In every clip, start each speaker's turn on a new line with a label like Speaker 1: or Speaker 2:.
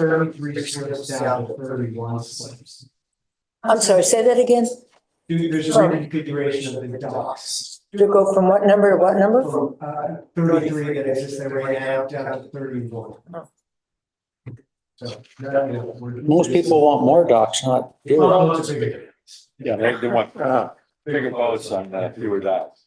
Speaker 1: Thirty-three slips down to thirty-one slips.
Speaker 2: I'm sorry, say that again,
Speaker 1: Due- There's a reconfiguration of the docks.
Speaker 2: to go from what number to what number?
Speaker 1: From uh thirty-three that exists there right now down to thirty-one.
Speaker 2: Oh.
Speaker 1: So. no, no, we're-
Speaker 3: Most people want more docks, not fewer.
Speaker 1: Oh, it's a big-
Speaker 4: Yeah, they, they want, uh, bigger boats on, uh, fewer docks.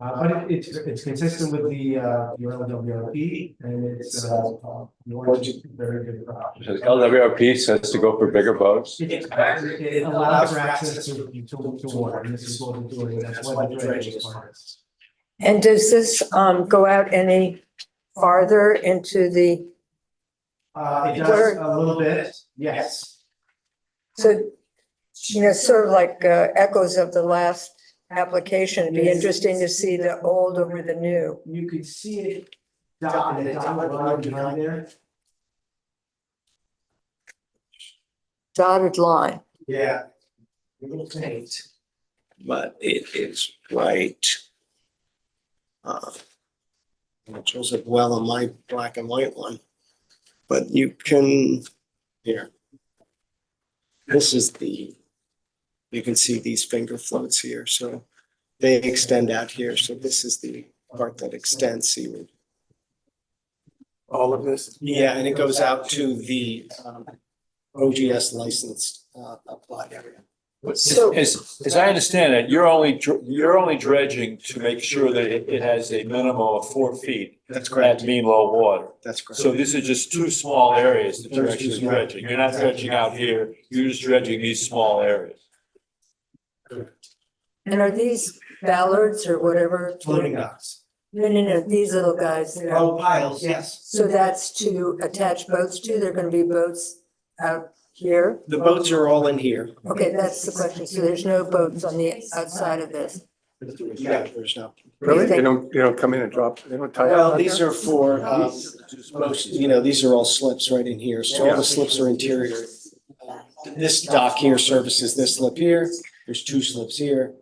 Speaker 1: Uh, but it- it's, it's consistent with the, uh, your LWRP and it's, uh, uh, Norwich is a very good product.
Speaker 4: So the LWRP says to go for bigger boats.
Speaker 1: It it allows for access to, to, to water, and this is what we're doing, that's why the dredging is part of this.
Speaker 2: And does this um go out any farther into the,
Speaker 1: Uh, it does a little bit, yes,
Speaker 2: so, you know, sort of like uh, echoes of the last application, it'd be interesting to see the old over the new.
Speaker 1: you could see it dotted, it dotted line behind there.
Speaker 2: Dotted line,
Speaker 1: Yeah. A little faint.
Speaker 5: but it is right. uh, It shows up well on my black and white one, but you can, here. This is the, you can see these finger floats here, so they extend out here, so this is the part that extends seaward.
Speaker 1: All of this?
Speaker 5: Yeah, and it goes out to the um, OGS licensed uh, applied area.
Speaker 2: So-
Speaker 4: As, as I understand it, you're only, dr- you're only dredging to make sure that it, it has a minimum of four feet
Speaker 5: That's correct,
Speaker 4: at mean low water.
Speaker 5: that's correct.
Speaker 4: So these are just two small areas that you're actually dredging. You're not dredging out here, you're just dredging these small areas.
Speaker 2: and are these ballards or whatever?
Speaker 1: Floating docks.
Speaker 2: No, no, no, these little guys, that are-
Speaker 1: Oh, piles, yes.
Speaker 2: so that's to attach boats to, they're gonna be boats out here?
Speaker 5: The boats are all in here.
Speaker 2: Okay, that's the question, so there's no boats on the outside of this?
Speaker 5: Yeah, there's no.
Speaker 6: Really?
Speaker 2: Thank-
Speaker 6: They don't, they don't come in and drop, they don't tie up?
Speaker 5: Well, these are for, um, most, you know, these are all slips right in here, so all the slips are interior. Uh, This dock here services this slip here, there's two slips here,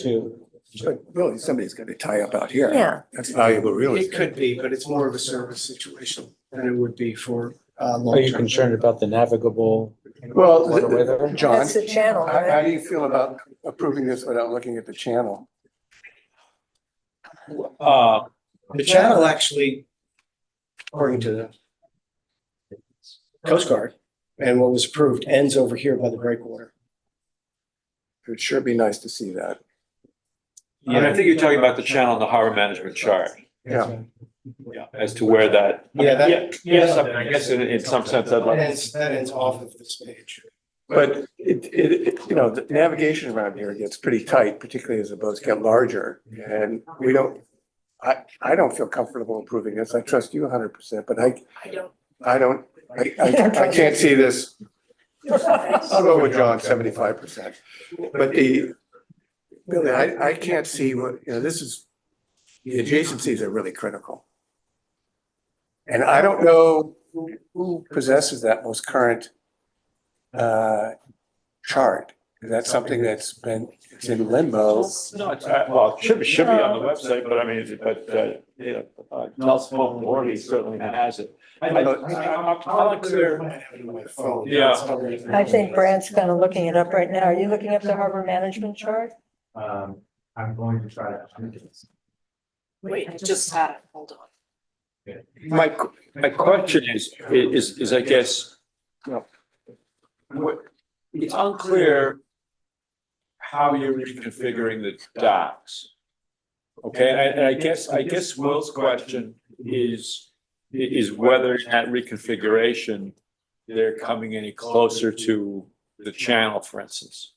Speaker 5: two.
Speaker 6: But really, somebody's gonna tie up out here.
Speaker 2: Yeah,
Speaker 6: That's valuable, really.
Speaker 5: It could be, but it's more of a service situation than it would be for, uh, long
Speaker 3: Are you
Speaker 5: term.
Speaker 3: concerned about the navigable?
Speaker 6: Well, the-
Speaker 3: waterway there?
Speaker 6: John,
Speaker 2: that's the channel,
Speaker 6: how,
Speaker 2: right?
Speaker 6: how do you feel about approving this without looking at the channel?
Speaker 4: Uh,
Speaker 5: The channel actually, according to the Coast Guard and what was approved, ends over here by the breakwater.
Speaker 6: It'd sure be nice to see that.
Speaker 4: and I think you're talking about the channel in the harbor management chart.
Speaker 6: Yeah.
Speaker 4: Yeah, as to where that.
Speaker 5: Yeah, that-
Speaker 4: Yeah, Yes, I mean, I guess in, in some sense, I'd
Speaker 5: That
Speaker 4: like,
Speaker 5: ends, that ends off of this page.
Speaker 6: But it, it, it- you know, the navigation around here gets pretty tight, particularly as the boats get larger. And we don't, I, I don't feel comfortable approving this. I trust you hundred percent, but I, I don't, I, I, I can't see this. I'll go with John, seventy-five percent. But the, Billy, I, I can't see what, you know, this is, the adjacencies are really critical. And I don't know who- who possesses that most current uh, chart. Is that something that's been, it's in limbo?
Speaker 4: no, it's, uh, well, it should, be- should be on the website, but I mean, but, uh, you know, uh, Nelson Morley certainly has it. I, I, I'm, I'm unclear. Yeah.
Speaker 2: I think Brandt's kind of looking it up right now. Are you looking up the harbor management chart?
Speaker 1: Um, I'm going to try to. find this.
Speaker 7: Wait, I just had it, hold on.
Speaker 4: My, qu- my question is, is, is I guess, you know, what, it's unclear how you're reconfiguring the docks. Okay, and I, and I guess, I guess Will's question is, i- is whether in that reconfiguration, they're coming any closer to the channel, for instance.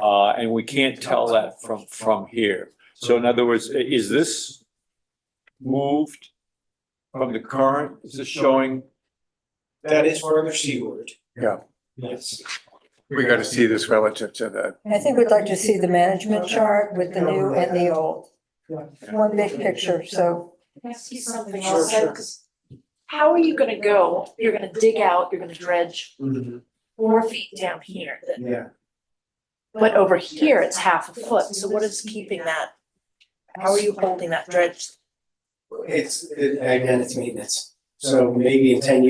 Speaker 4: Uh, and we can't tell that from, from here. So in other words, i- is this moved from the current, is this showing?
Speaker 5: That is further seaward.
Speaker 6: Yeah.
Speaker 5: Yes.
Speaker 6: We gotta see this relative to the,
Speaker 2: I think we'd like to see the management chart with the new and the old. One big picture, so,
Speaker 7: Can I see something
Speaker 5: Sure,
Speaker 7: else?
Speaker 5: sure.
Speaker 7: 'Cause How are you gonna go? You're gonna dig out, you're gonna dredge four feet down here, then-
Speaker 5: Mm-hmm. Yeah.
Speaker 7: but over here, it's half a foot, so what is keeping that? How are you holding that dredge
Speaker 5: It's, it- again, it's maintenance. So maybe in ten years.